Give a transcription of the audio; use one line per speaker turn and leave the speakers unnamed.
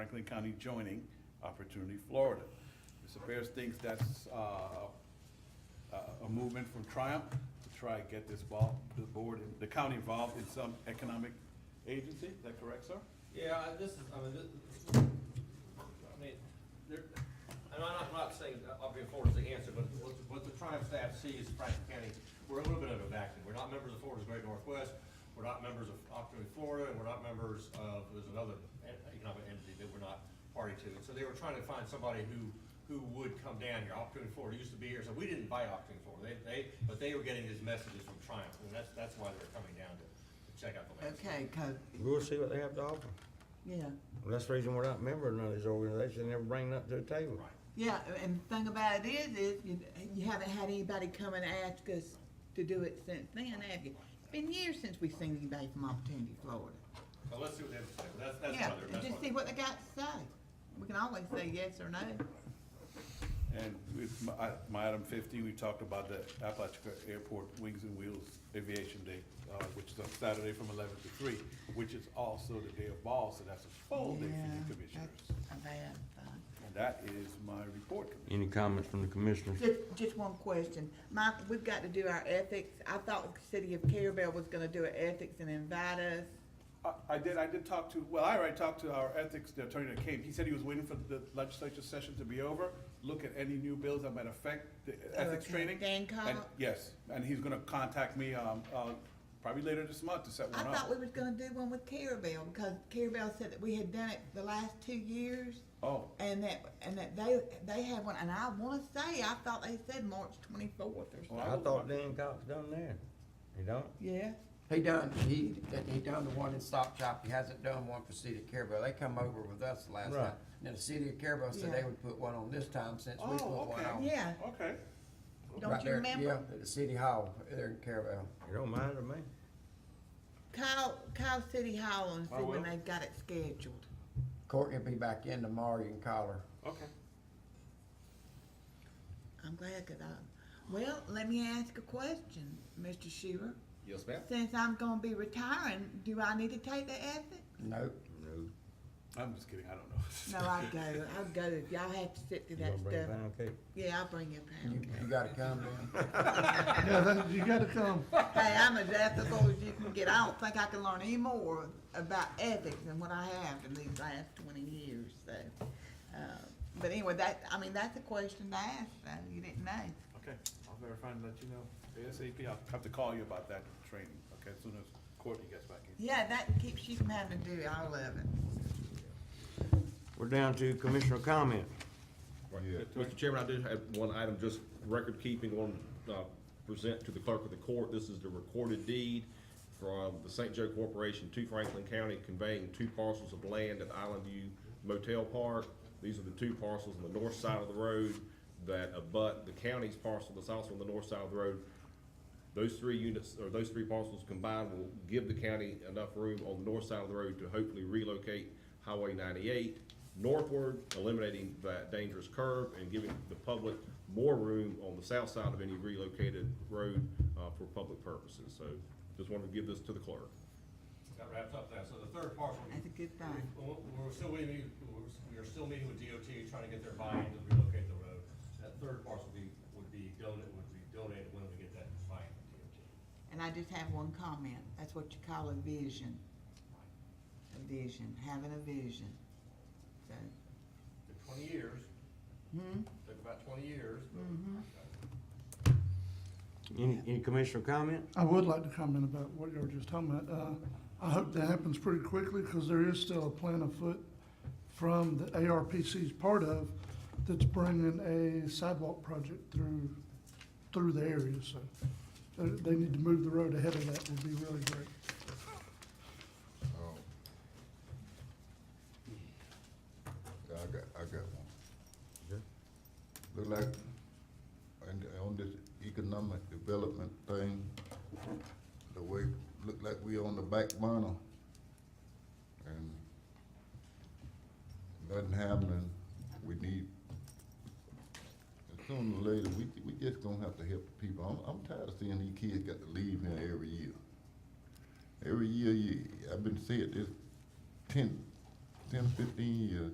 Franklin County joining Opportunity Florida. Mr. Bears thinks that's uh, a a movement from Triumph to try and get this ball, the board, and the county involved in some economic agency. Is that correct, sir?
Yeah, I- this is, I mean, this, I mean, there, and I'm not, I'm not saying, obviously, Florida's the answer, but what, the- what the Triumph staff sees, Franklin County, we're a little bit of a vacuum. We're not members of Florida's Great Northwest, we're not members of Opportunity Florida, and we're not members of, there's another en- economic entity that we're not party to. And so they were trying to find somebody who, who would come down here. Opportunity Florida used to be here, so we didn't buy Opportunity Florida. They, they, but they were getting these messages from Triumph, and that's, that's why they're coming down to, to check out the landscape.
Okay, 'cause-
We'll see what they have to offer.
yeah,
That's the reason we're not a member of none of these organizations, they never bring nothing to the table.
Right.
yeah, and the thing about it is, is you, you haven't had anybody come and ask us to do it since then, have you? It's been years since we've seen anybody from Opportunity Florida.
So let's see what they have to say. That's, that's
Yeah,
why they're,
and
that's why
just see what they got to say. We can always say yes or no.
And with my, I- my item fifteen, we talked about the Apalachicola Airport Wings and Wheels Aviation Day, uh, which is on Saturday from eleven to three, which is also the day of ball, so that's a full day for
Yeah,
you commissioners.
that's a bad thing.
And that is my report, Commissioner.
Any comments from the commissioners?
Just, just one question. Mike, we've got to do our ethics. I thought the city of Carabel was gonna do an ethics and invite us.
I, I did, I did talk to, well, I already talked to our ethics the attorney that came. He said he was waiting for the legislature session to be over, look at any new bills that might affect the ethics
Oh, okay.
training.
Dan
And-
Cobb?
Yes, and he's gonna contact me, um, uh, probably later this month to set
I
one
thought
up.
we was gonna do one with Carabel, because Carabel said that we had done it the last two years,
Oh,
and that, and that they, they had one, and I wanna say, I thought they said March twenty-fourth or something.
well,
I
will-
thought Dan Cox done there. He don't?
Yeah,
He done, he, that he done the one in Stop Shop, he hasn't done one for City of Carabel, they come over with us the last
Right.
time. Then the City of Carabel said they
Yeah.
would put one on this time since we put
Oh,
one on.
okay.
yeah,
Okay.
don't
right
you
there, Yeah,
remember?
at the City Hall, there in Carabel.
It don't matter to me.
Call, call City Hall
Oh,
and see
I will.
when they've got it scheduled.
Courtney will be back in tomorrow, you can call her.
Okay.
I'm glad, cause I, well, let me ask a question, Mr. Shearer.
Yes, ma'am.
Since I'm gonna be retiring, do I need to take the ethics?
Nope,
No,
I'm just kidding, I don't know.
No, I go, I go, if y'all have to sit through
you gonna
that
bring
stuff.
pound cake?
Yeah, I'll bring you a
you,
pound.
you gotta come then.
you gotta come.
Hey, I'm as ethical as you can get. I don't think I can learn any more about ethics than what I have in these last twenty years, so. uh, But anyway, that, I mean, that's a question to ask, so you didn't know.
Okay, I'll verify and let you know ASAP. I'll have to call you about that training, okay, as soon as Courtney gets back in.
Yeah, that keeps you from having to do all of it.
We're down to commissioner comment.
Mr. Chairman, I do have one item, just record keeping on, uh, present to the clerk of the court. This is the recorded deed from the St. Joe Corporation to Franklin County conveying two parcels of land at Island View Motel Park. These are the two parcels on the north side of the road that abut the county's parcel that's also on the north side of the road. Those three units, or those three parcels combined will give the county enough room on the north side of the road to hopefully relocate Highway ninety-eight northward, eliminating that dangerous curve and giving the public more room on the south side of any relocated road, uh, for public purposes. So just wanted to give this to the clerk.
That wraps up that, so the third parcel.
That's a good thing.
We're, we're still waiting, we're, we're still meeting with DOT, trying to get their buy-in to relocate the road. That third parcel would be, would be donated, would be donated when we get that buy-in from DOT.
And I just have one comment. That's what you call a vision. A vision, having a vision. So,
Took twenty years,
hmm,
took about twenty years, but
Any, any commissioner comment?
I would like to comment about what you were just talking about. Uh, I hope that happens pretty quickly because there is still a plan afoot from the ARPC's part of that's bringing a sidewalk project through, through the area. So uh, they, they need to move the road ahead of that would be really great.
Oh. Yeah, I got, I got one. Look like, and on this economic development thing, the way, look like we on the back burner. And nothing happening, we need, sooner or later, we, we just gonna have to help the people. I'm, I'm tired of seeing these kids got to leave here every year. Every year, you, I've been saying this ten, ten, fifteen years,